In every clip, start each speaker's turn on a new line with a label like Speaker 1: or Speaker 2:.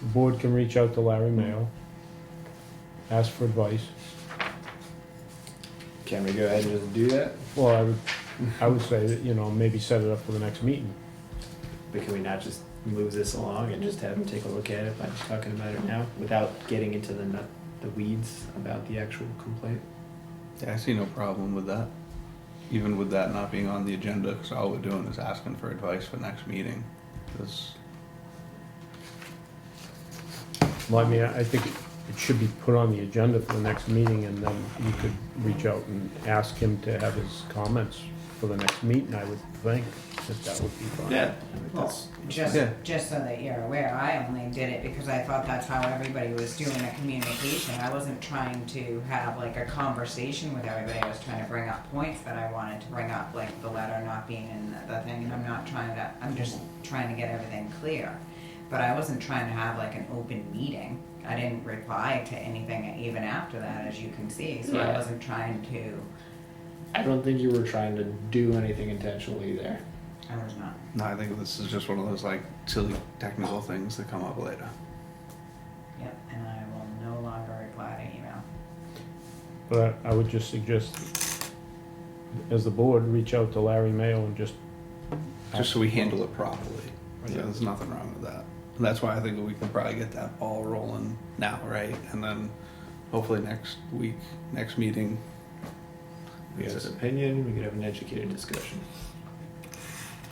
Speaker 1: The board can reach out to Larry Mayo, ask for advice.
Speaker 2: Can we go ahead and just do that?
Speaker 1: Well, I would, I would say that, you know, maybe set it up for the next meeting.
Speaker 2: But can we not just move this along and just have him take a look at it by just talking about it now without getting into the nut, the weeds about the actual complaint?
Speaker 3: Yeah, I see no problem with that. Even with that not being on the agenda, because all we're doing is asking for advice for next meeting. That's,
Speaker 1: Well, I mean, I I think it should be put on the agenda for the next meeting, and then you could reach out and ask him to have his comments for the next meeting, I would think, that that would be fine.
Speaker 2: I think
Speaker 4: Well,
Speaker 2: that's-
Speaker 4: Just,
Speaker 3: Yeah.
Speaker 4: just so that you're aware, I only did it because I thought that's how everybody was doing a communication. I wasn't trying to have like a conversation with everybody. I was trying to bring up points that I wanted to bring up, like the letter not being in the- the thing, and I'm not trying to, I'm just trying to get everything clear. But I wasn't trying to have like an open meeting. I didn't reply to anything even after that, as you can see, so I
Speaker 2: Yeah.
Speaker 4: wasn't trying to,
Speaker 2: I don't think you were trying to do anything intentionally there.
Speaker 4: I was not.
Speaker 3: no, I think this is just one of those like silly technical things that come up later.
Speaker 4: Yep, and I will no longer reply to email.
Speaker 1: But I would just suggest, as the board, reach out to Larry Mayo and just.
Speaker 3: Just so we handle it properly. Yeah,
Speaker 2: Yeah.
Speaker 3: there's nothing wrong with that. And that's why I think we can probably get that ball rolling now, right? And then hopefully next week, next meeting.
Speaker 2: We have an opinion, we could have an educated discussion.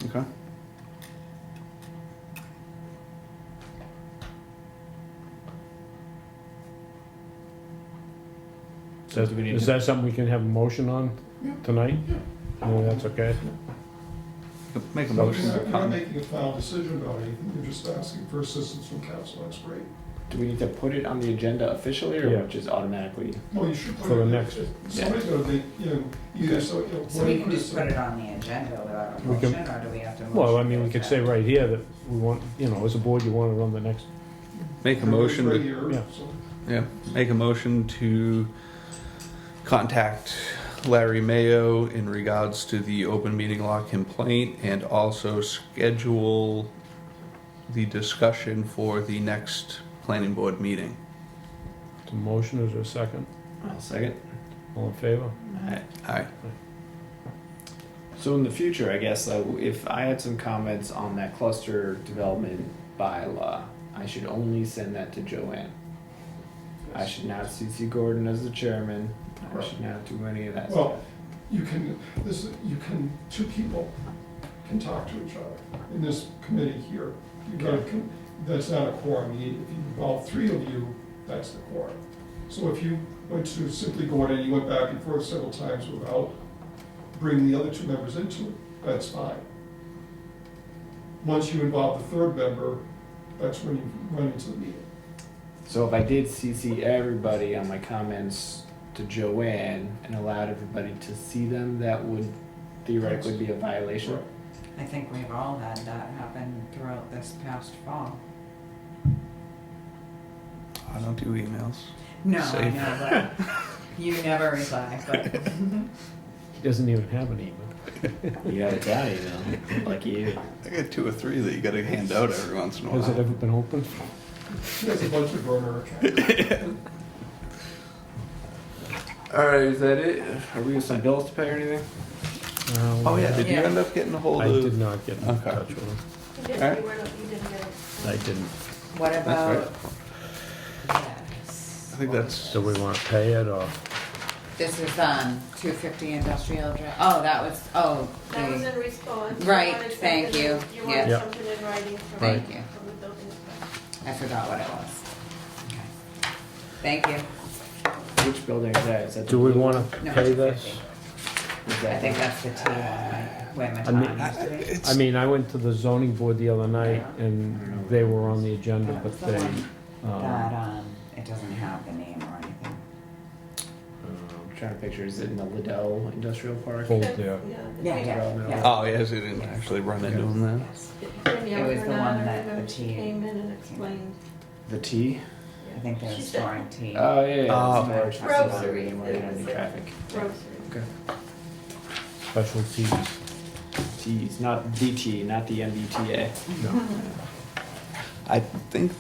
Speaker 3: Okay.
Speaker 2: So do we need
Speaker 1: Is
Speaker 2: to-
Speaker 1: that something we can have a motion on tonight? No, that's okay.
Speaker 3: Make a
Speaker 1: So-
Speaker 3: motion.
Speaker 5: You're not- you're not making a final decision about anything, you're just asking for assistance from council, that's great.
Speaker 2: Do we need to put it on the agenda officially or
Speaker 1: Yeah.
Speaker 2: just automatically?
Speaker 5: Well, you should put it.
Speaker 1: For the next-
Speaker 5: Somebody's gonna make, you know, either, so, you know.
Speaker 4: So we can just put it on the agenda without a
Speaker 1: We can-
Speaker 4: motion, or do we have to?
Speaker 1: Well, I
Speaker 4: motion
Speaker 1: mean, we
Speaker 4: to
Speaker 1: could say
Speaker 4: accept?
Speaker 1: right here that we want, you know, as a board, you want it on the next,
Speaker 3: Make a motion to
Speaker 5: Right here,
Speaker 1: yeah.
Speaker 5: so.
Speaker 3: Yeah, make a motion to contact Larry Mayo in regards to the open meeting law complaint and also schedule the discussion for the next planning board meeting.
Speaker 1: the motion, is there a second?
Speaker 2: I'll second.
Speaker 1: All in favor?
Speaker 2: Alright.
Speaker 3: Aye.
Speaker 2: So in the future, I guess, uh, if I had some comments on that cluster development bylaw, I should only send that to Joanne. I should not CC Gordon as the chairman. I should not do any of that stuff.
Speaker 5: Well, you can, this, you can, two people can talk to each other in this committee here. You got,
Speaker 2: Okay.
Speaker 5: that's not a quorum, You need- if you involve three of you, that's the quorum. So if you went to simply Gordon, you went back and forth several times without bringing the other two members into it, that's fine. Once you involve the third member, that's when you run into the meeting.
Speaker 2: So if I did CC everybody on my comments to Joanne and allowed everybody to see them, that would theoretically be a violation.
Speaker 4: I think we've all had that happen throughout this past fall.
Speaker 3: I don't do emails.
Speaker 4: No, I
Speaker 3: Safe.
Speaker 4: know, but you never reply, but
Speaker 1: He doesn't even have an email.
Speaker 2: You gotta die, you know, like you.
Speaker 3: I got two or three that you gotta hand out every once in a
Speaker 1: Has it
Speaker 3: while.
Speaker 1: ever been opened?
Speaker 5: She has a bunch of burner accounts.
Speaker 2: Alright, is that it? Are we got some bills to pay or anything?
Speaker 3: Oh yeah, did you
Speaker 4: Yeah.
Speaker 3: end up getting a hold
Speaker 1: Uh, I did
Speaker 3: of?
Speaker 1: not get in
Speaker 3: Okay.
Speaker 1: touch with him.
Speaker 6: You didn't,
Speaker 3: Alright.
Speaker 6: you weren't, you didn't get it.
Speaker 1: I didn't.
Speaker 4: what
Speaker 3: That's
Speaker 4: about?
Speaker 3: I think that's,
Speaker 1: So we want to pay it or?
Speaker 4: This is, um, two fifty industrial drive, oh, that was, oh,
Speaker 6: That was
Speaker 4: the-
Speaker 6: in response. You
Speaker 4: Right,
Speaker 6: wanted
Speaker 4: thank
Speaker 6: something-
Speaker 4: you.
Speaker 6: You
Speaker 4: Yeah.
Speaker 6: wanted
Speaker 1: Yep.
Speaker 6: something in writing from.
Speaker 4: Thank
Speaker 6: the-
Speaker 4: you.
Speaker 6: From the building inspector.
Speaker 4: I forgot what it was. Okay. Thank you.
Speaker 2: Which building is that? Is that the
Speaker 1: Do we
Speaker 2: blue-
Speaker 1: want to
Speaker 4: No,
Speaker 1: pay
Speaker 4: it's
Speaker 1: this?
Speaker 4: 50.
Speaker 2: is
Speaker 4: I
Speaker 2: that
Speaker 4: think
Speaker 2: the-
Speaker 4: that's the T one, right? Where my
Speaker 1: I mean,
Speaker 4: time used to be.
Speaker 1: I mean, I went to the zoning board the other night
Speaker 2: don't know.
Speaker 1: and they were on the agenda,
Speaker 4: That was
Speaker 1: but
Speaker 4: the
Speaker 1: they,
Speaker 4: one That,
Speaker 1: um,
Speaker 4: um, it doesn't have the name or anything.
Speaker 2: um, I'm trying to picture, is it in the Liddell Industrial Park?
Speaker 1: Hold there.
Speaker 4: Yeah,
Speaker 6: Yeah.
Speaker 4: yeah, yeah.
Speaker 3: oh yes, you didn't actually run into them then.
Speaker 4: Yes.
Speaker 6: It
Speaker 4: was the one that the tea-
Speaker 6: Came in and explained.
Speaker 2: The T?
Speaker 4: I think they're
Speaker 6: She said
Speaker 4: storing tea.
Speaker 2: Oh, yeah, yeah.
Speaker 3: Oh.
Speaker 2: Storage
Speaker 4: Grocery.
Speaker 2: facility, and we're gonna do traffic.
Speaker 6: grocery.
Speaker 2: Okay.
Speaker 1: specialties.
Speaker 2: T's, not DT, not the MBTA.
Speaker 1: No.
Speaker 3: I think